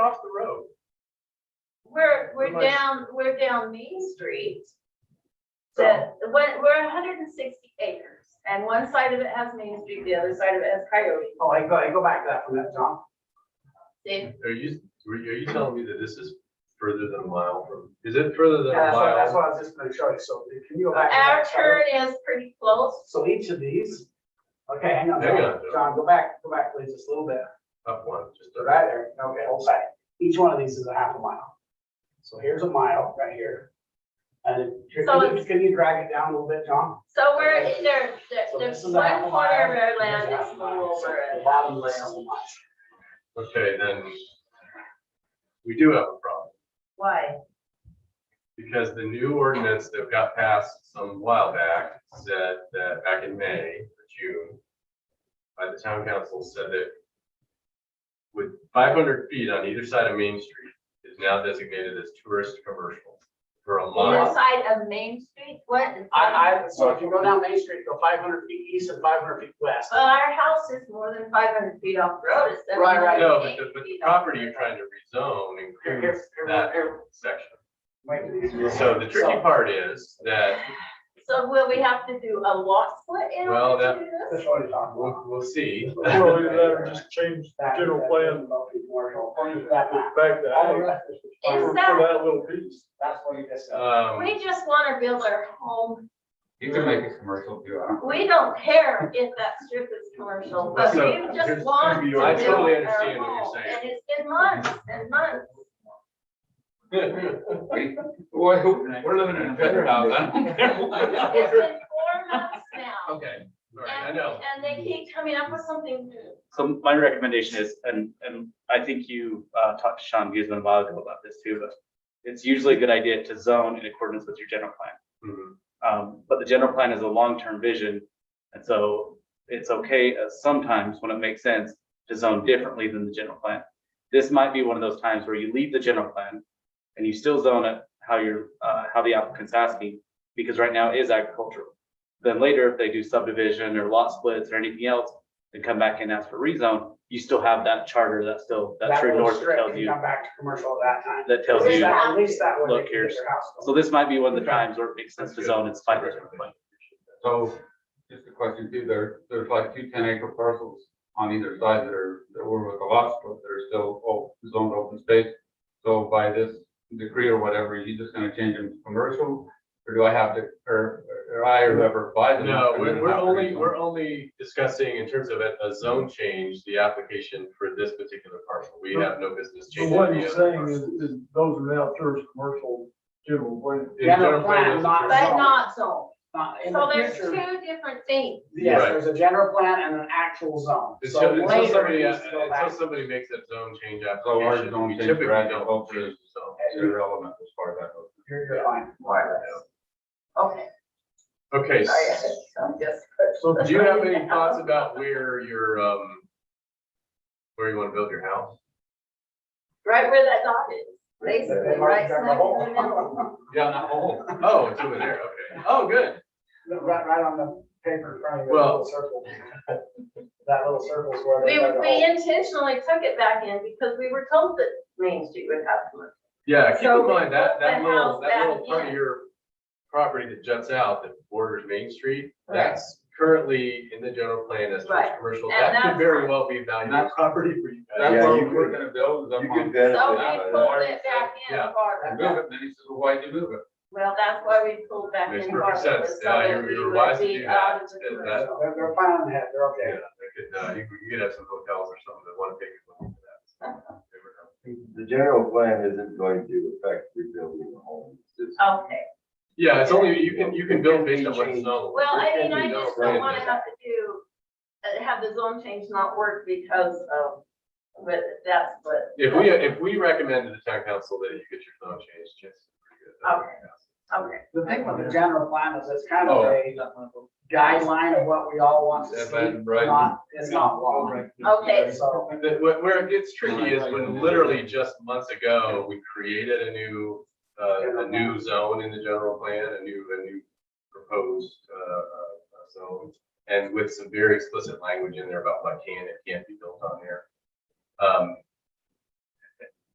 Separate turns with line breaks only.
across the road.
We're,
Am
we're
I-
down, we're down Main Street.
So-
The- when- we're hundred and sixty acres, and one side of it has Main Street, the other side of it has Coyote.
Oh, I go, I go back to that from that, John.
See?
Are you, are you telling me that this is further than a mile from, is it further than
Yeah,
a
that's what, that's
mile?
what I was just gonna show you, so can you go back? to
Our
that, Tyler?
turn is pretty close.
So each of these, okay, hang on,
Hang
John,
on, John.
John, go back, go back, please, just a little bit,
Up one, just
So
a-
right there, okay, hold tight. Each one of these is a half a mile. So here's a mile right here. And then, here,
So
can you,
it's-
can you drag it down a little bit, John?
So we're, there, there-
So
there's
this is a half
one
a
corner of
mile.
our
here's a half
land that's
a
a
mile.
little
So
over.
The
a
bottom
half
layer
mile.
is a mile.
okay, then we do have a problem,
Why?
because the new ordinance that got passed some while back said that back in May, or June, by the town council said that with five hundred feet on either side of Main Street is now designated as tourist commercial for a
Either
mile.
side of Main Street, what?
I, I, so if you go down Main Street, go five hundred feet east and five hundred feet west.
Well, our house is more than five hundred feet off the road, it's seven
Right,
hundred
right.
No, but the, but the property you're trying to rezone
Here, here,
includes
here,
that
here.
section.
Wait.
So the tricky part is that,
So will we have to do a lot split in
Well,
order
that-
to do this?
That's what it's on.
we'll, we'll see. Um,
Well, we better just change
That-
general
that-
plan.
Commercial. That map.
back to
All
ag
the rest is-
for
Is that-
that little piece.
That's what you just said.
Um,
We just wanna build our home.
You can make a commercial too. huh?
We don't care if that strip is commercial, but
So,
we
here's-
just want to
here's
build
the- I
our
totally understand what you're
home.
saying.
And it's been months and months.
We- We're we're living in a better house. I don't care.
It's been four months now.
Okay, all right, I
And,
know.
and they keep coming up with something new.
So my recommendation is, and, and I think you, uh, talked to Sean Guzman a while ago about this too, but it's usually a good idea to zone in accordance with your general plan.
Mhm.
Um, but the general plan is a long-term vision. And so it's okay uh, sometimes when it makes sense to zone differently than the general plan. This might be one of those times where you leave the general plan and you still zone it how you're, uh, how the applicant's asking, because right now it is agricultural. Then later, if they do subdivision or lot splits or anything else, and come back and ask for rezone, you still have that charter, that still, that
That
true
little
north that
strip
tells
can
you,
Come back to commercial at that time.
that
At
tells
Is
least
you.
that- At least that way.
Look,
they can get
here's-
their house built.
So this might be one of the times where it makes sense to zone, it's five.
So just a question too, there, there's like two 10 acre parcels on either side that are, that were with a lot split, that are still o- zoned open space. So by this decree or whatever, you just gonna change them to commercial? Or do I have to, or, or I or whoever buys them?
No,
and
we're,
then
we're
have to
only,
rezone?
we're only discussing in terms of a, a zone change, the application for this particular parcel. We have no business
So
changing.
what
any
you're
other
saying is,
parcel.
is those are now tourist commercial general plan.
In
Yeah, no,
general plan,
plan,
it's
not-
a
But-
tourist-
But not zone.
Not in
So
the
there's
future.
two different things.
Yes,
Right.
there's a general plan and an actual zone. So
Until until
later
somebody,
it
uh,
needs to go back.
until somebody makes that zone change
So our
application,
zone
we
change
typically
for
don't
agriculture
change
is
the zone.
irrelevant as far as that goes.
You're, you're fine.
Okay.
Okay,
I'm just.
So
Do you have any thoughts about where your, um, where you wanna build your house?
Right where that dot is, basically,
They marked
right smack
down
in
the hole.
the middle.
Yeah, not whole. Oh, it's over there, okay. Oh, good.
Right, right on the paper in front of you, that
Well-
little circle. That little circle's where they
We,
dug a
we
hole.
intentionally took it back in because we were told that Main Street would have one.
Yeah, keep
So
in
we
mind that, that
put the
little,
house
that little
back
part of
in.
your property that juts out that borders Main Street,
Right.
that's currently in the general plan as towards
Right.
commercial.
And
That could
that's-
very well be valuable
That's-
property for you guys.
That's
Yeah,
what
you
we're
could-
gonna build, is up
you
on-
could
Yeah,
So
benefit.
we
but-
pulled it back in
Yeah.
And
farther.
move it, and then he says, well, why'd you move it?
Well, that's why we pulled back
Makes
in farther.
perfect sense.
was so
Yeah,
that
you're-
we
you're
would
wise to
be
do that.
out of the
That- that-
commercial.
They're, they're fine on the head, they're okay.
Yeah, they could, uh, you could, you could have some hotels or something that wanna take advantage of that.
The general plan isn't going to affect rebuilding the home. It's just-
Okay,
Yeah, it's only, you can, you can build based on what's
Change.
zoned.
well, I
There
mean,
can
I
be no
just don't
right.
wanna have to do, uh, have the zone change not work because of, but that's what.
If we, if we recommend to the town council that you get your zone changed, chances are pretty good.
Okay,
The thing with the general plan is it's kind of
Oh.
a guideline of what we all want to
That
see,
might- right.
not, it's not law.
okay,
So,
The- wh- Where it gets tricky is when literally just months ago, we created a new, uh, a new zone in the general plan, a new, a new proposed, uh, uh, zone. And with some very explicit language in there about what can and can't be built on there. Um,